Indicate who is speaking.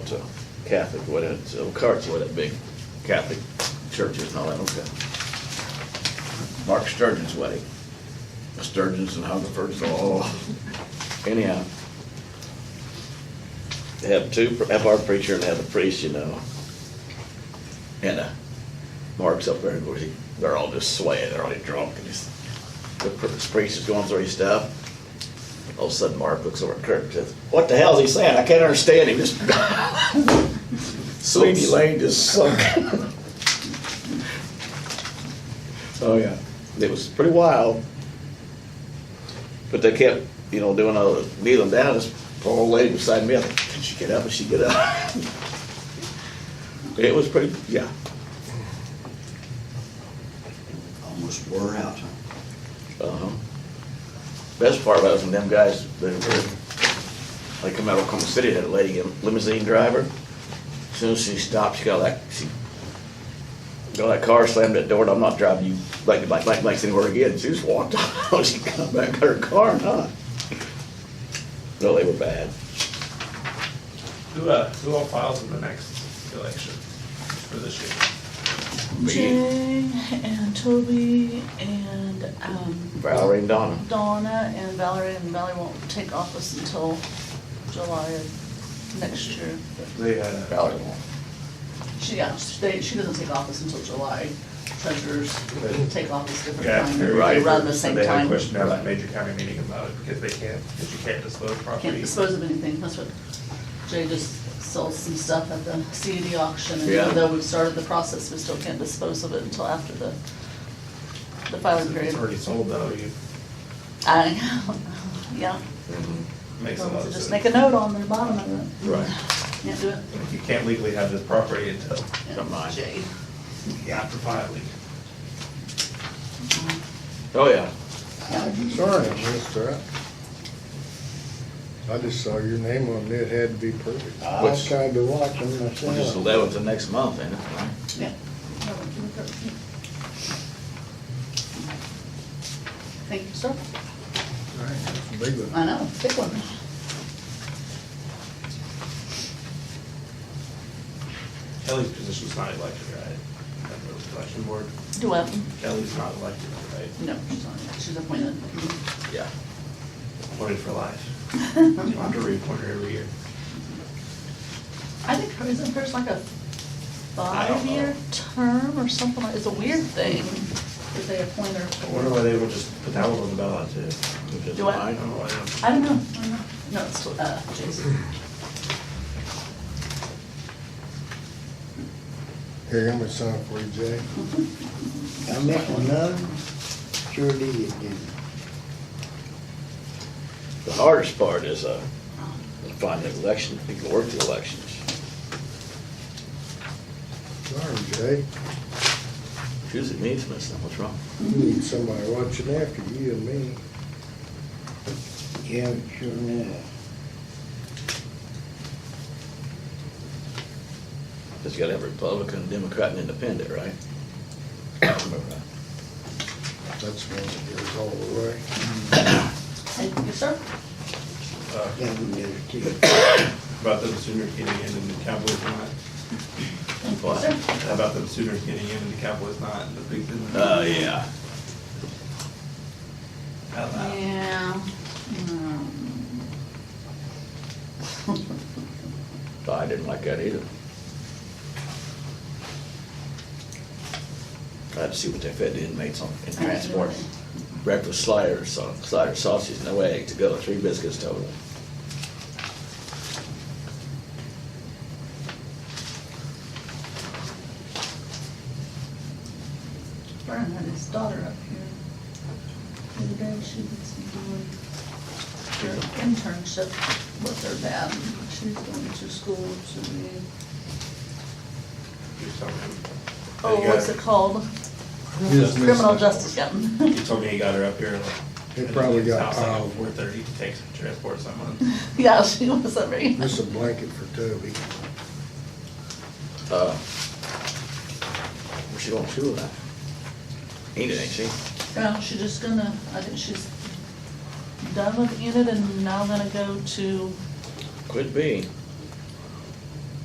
Speaker 1: it's a Catholic, what, it's, oh, Carts, what, that big Catholic churches and all that, okay. Mark Sturgeon's wedding, Sturgeon's and Hungerford's, oh, anyhow. Have two, have our preacher and have the priest, you know. And, uh, Mark's up there, and we- they're all just swaying, they're already drunk, and he's, the priest is going through his stuff. All of a sudden, Mark looks over at Kirk and says, "What the hell is he saying? I can't understand him." Just Sweeney Lane just sunk. oh yeah, it was pretty wild. But they kept, you know, doing all the kneeling down. This poor old lady beside me, I thought, "Can she get up? Can she get up?" it was pretty, yeah.
Speaker 2: Almost wore out, huh?
Speaker 1: Uh-huh. Best part about it was when them guys, they were, they come out of Oklahoma City, had a lady, a limousine driver. As Soon as she stopped, she got like, she got that car, slammed that door, and I'm not driving you blank, blank, blank, blank anywhere again. She just walked off. She got back in her car and not. No, they were bad.
Speaker 3: Who, uh, who all files in the next election for this year?
Speaker 1: Me,
Speaker 4: Jane and Toby and, um,
Speaker 1: Valerie and Donna.
Speaker 4: Donna and Valerie, and Valerie won't take office until July of next year.
Speaker 3: They, uh,
Speaker 1: Valerie won.
Speaker 4: She, yeah, they, she doesn't take office until July. Treasurers take office different
Speaker 3: got
Speaker 4: time,
Speaker 3: their-
Speaker 4: they run the same
Speaker 3: They had a
Speaker 4: time.
Speaker 3: question at that major county meeting about it, because they can't, because you can't disclose
Speaker 4: Can't
Speaker 3: property.
Speaker 4: dispose of anything, that's what, Jay just sells some stuff at the CED auction, and
Speaker 1: Yeah.
Speaker 4: even though we've started the process, we still can't dispose of it until after the, the filing
Speaker 3: It's
Speaker 4: period.
Speaker 3: already sold though, you
Speaker 4: I, yeah,
Speaker 3: make
Speaker 4: so
Speaker 3: some of
Speaker 4: just
Speaker 3: sense.
Speaker 4: make a note on the bottom of it.
Speaker 1: Mm-hmm. Right.
Speaker 4: Can't do it.
Speaker 3: Like, You can't legally have this property until
Speaker 1: Don't mind.
Speaker 4: Jay.
Speaker 3: you have to file it.
Speaker 1: Oh, yeah.
Speaker 5: Sorry, I missed that. I just saw your name on it, it had to be perfect. I
Speaker 1: Which-
Speaker 5: tried to watch them
Speaker 1: Which is
Speaker 5: myself.
Speaker 1: eleventh of next month, ain't it?
Speaker 4: Yeah. Thank you, sir.
Speaker 5: Big one.
Speaker 4: I know, big one.
Speaker 3: Kelly's position's not elected, right? At the Election board,
Speaker 4: Do I?
Speaker 3: Kelly's not elected, right?
Speaker 4: No, she's not, she's appointed.
Speaker 1: Yeah.
Speaker 3: Appointed for life. You have to reappoint her every year.
Speaker 4: I think her- isn't hers like a
Speaker 3: I don't know.
Speaker 4: five-year term or something like, it's a weird thing that they appoint her
Speaker 3: I wonder
Speaker 4: for.
Speaker 3: why they would just put that one on the ballot too.
Speaker 1: Which is
Speaker 4: Do I?
Speaker 3: I
Speaker 1: mine.
Speaker 3: don't know why they don't.
Speaker 4: I don't know, I don't know. No, it's, uh, Jason.
Speaker 5: Here, I'm gonna sign for you, Jay.
Speaker 6: I met one of them, sure did, didn't
Speaker 1: The hardest part is, uh, finding election, people work the elections.
Speaker 5: Sorry, Jay.
Speaker 1: Choosing needs missing, what's wrong?
Speaker 5: You
Speaker 3: Hmm.
Speaker 5: need somebody watching after you and me.
Speaker 6: you? Yeah, sure enough.
Speaker 1: Just gotta have Republican, Democrat, and Independent, right? Well,
Speaker 5: That's one that goes all the way.
Speaker 4: Thank you, sir.
Speaker 3: Uh,
Speaker 6: That one does too.
Speaker 3: About them Sooners getting in and the Cowboys not.
Speaker 4: Thank you, sir.
Speaker 3: About them Sooners getting in and the Cowboys not, the big business.
Speaker 1: Uh, yeah.
Speaker 3: Out loud.
Speaker 4: Yeah. um,
Speaker 1: I didn't like that either. I had to see what they fed the inmates on, in
Speaker 4: I don't know.
Speaker 1: transport. Breakfast sliders, so- slider sausage, no egg to go, three biscuits total.
Speaker 4: Brian had his daughter up here. The other day she was doing her internship with her dad. She's going to school to be,
Speaker 3: You told me-
Speaker 4: oh,
Speaker 3: you
Speaker 4: what's
Speaker 3: got-
Speaker 4: it called?
Speaker 5: Yes, miss.
Speaker 4: Criminal justice, yeah.
Speaker 3: You told me he got her up here. like,
Speaker 5: They
Speaker 3: at
Speaker 5: probably
Speaker 3: his
Speaker 5: got uh,
Speaker 3: house, like,
Speaker 5: piled.
Speaker 3: Four thirty to take some transport someone.
Speaker 4: Yeah, she was a very,
Speaker 5: This is a blanket for Toby.
Speaker 1: Uh, Where's she going to school at? Enid, ain't she?
Speaker 4: well, she's just gonna, I think she's done with unit and now gonna go to
Speaker 1: Could be.